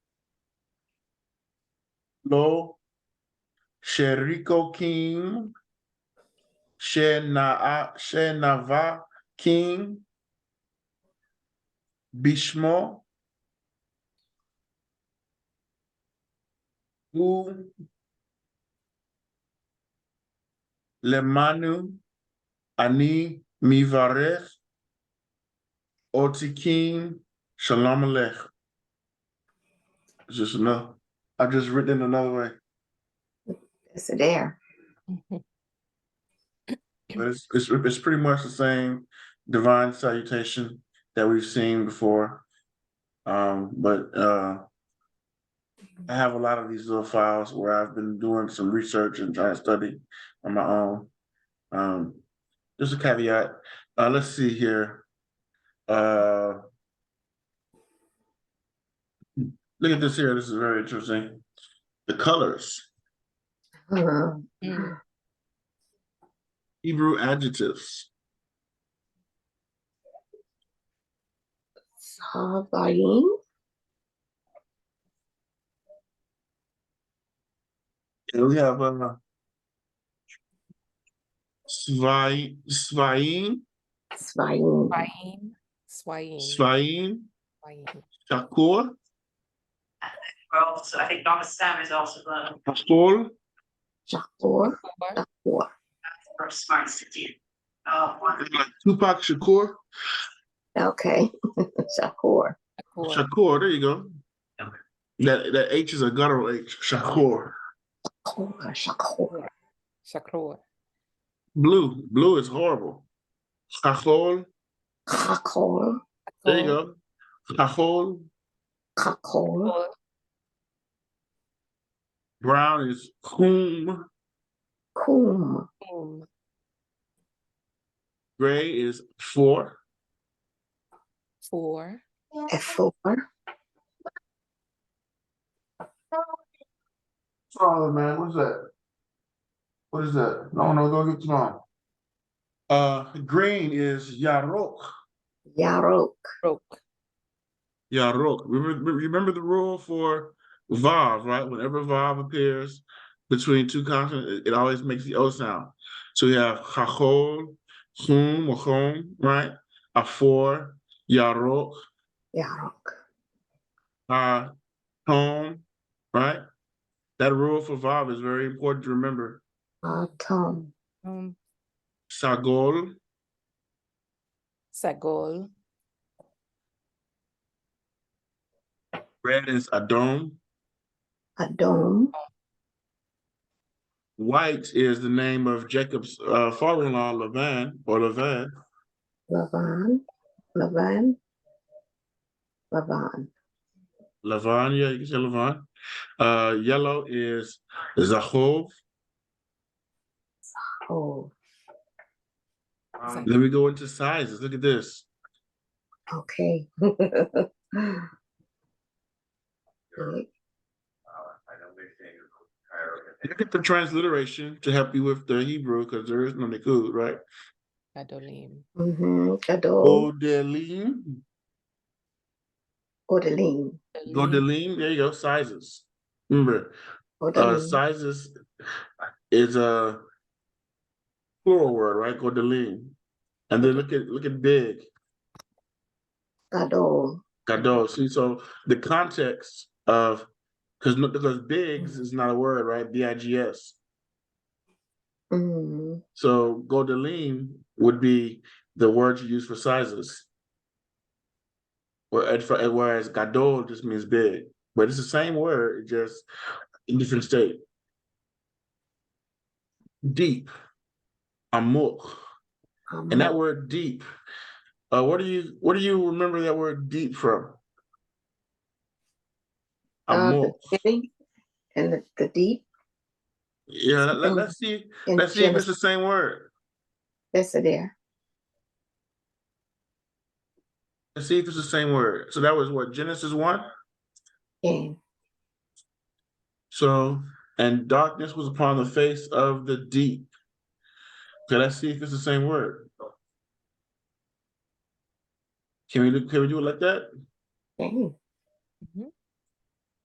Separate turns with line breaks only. Lo, Sheriko King, Shenaa, Shenava King, Bishmo, U, Lemanu, Ani Mivarech, Otikim, Shalom Alech. It's Just enough. I just written it another way,
It's a dare.
but it's, it's, it's pretty much the same divine salutation that we've seen before. Um, but, uh, I have a lot of these little files where I've been doing some research and trying to study on my own. Um, just a caveat, uh, let's see here. Uh. Look at this here, this is very interesting. The colors,
Mhm.
Mm.
Hebrew adjectives,
Savaim,
And we have, uh. Svai, Svaim,
Svaim,
Swaying, swaying,
Svaim,
swaying.
Shakur,
Well, so I think Baba Sam is also the
Pastor,
Shakor,
Four,
Shakor,
first smart city. Uh, one,
Tupac Shakur,
okay, Shakor,
four,
Shakur, there you go.
Okay.
That that H is a guttural H. Shakur.
Shakor, Shakor,
Shakur,
Blue. Blue is horrible. Shakur.
Kakor,
There you go. Shakur.
Kakor,
Four,
Brown is Kum.
Kum,
boom,
Gray is four.
four,
Efor,
Oh man, what's that? What is that? No, no, go get mine. Uh, green is Yarok.
Yarok,
broke,
Yarok. Remember, remember the rule for Vav, right? Whenever Vav appears between two consonants, it, it always makes the O sound. So we have Chachol, Chum, or Chum, right? Afor, Yarok,
Yarok,
Ha, Tom, right? That rule for Vav is very important to remember.
Atom,
um,
Sagol,
sagol,
red is Adom,
Adom,
white is the name of Jacob's uh, father-in-law, Lavan, or Lavan.
Lavan, Lavan, Lavan,
Lavan, yeah, you can say Lavan. Uh, yellow is Zahov.
oh,
Zahov.
Then we go into sizes. Look at this.
okay.
Look at the transliteration to help you with the Hebrew because there is no Nikud, right?
adolim,
Mm-hmm, Gadol,
Godelim,
Odelim,
adolim,
Godelim. There you go. Sizes. Remember, uh,
Odelim.
sizes is a plural word, right? Godelim. And then look at look at big.
Gadol,
Gadol. See, so the context of because because bigs is not a word, right? B I G S.
mm,
So Godelim would be the word you use for sizes. Whereas, whereas Gadol just means big, but it's the same word, it just in different state. Deep, amok, and that word deep. Uh, what do you what do you remember that word deep from?
Uh,
Amok.
the city and the, the deep
Yeah, let- let- let's
something
see.
in
Let's see if it's
Genesis.
the same word.
That's it there.
Let's see if it's the same word. So that was what Genesis one.
And
So, and darkness was upon the face of the deep. Okay, let's see if it's the same word. Can we do, can we do it like that?
and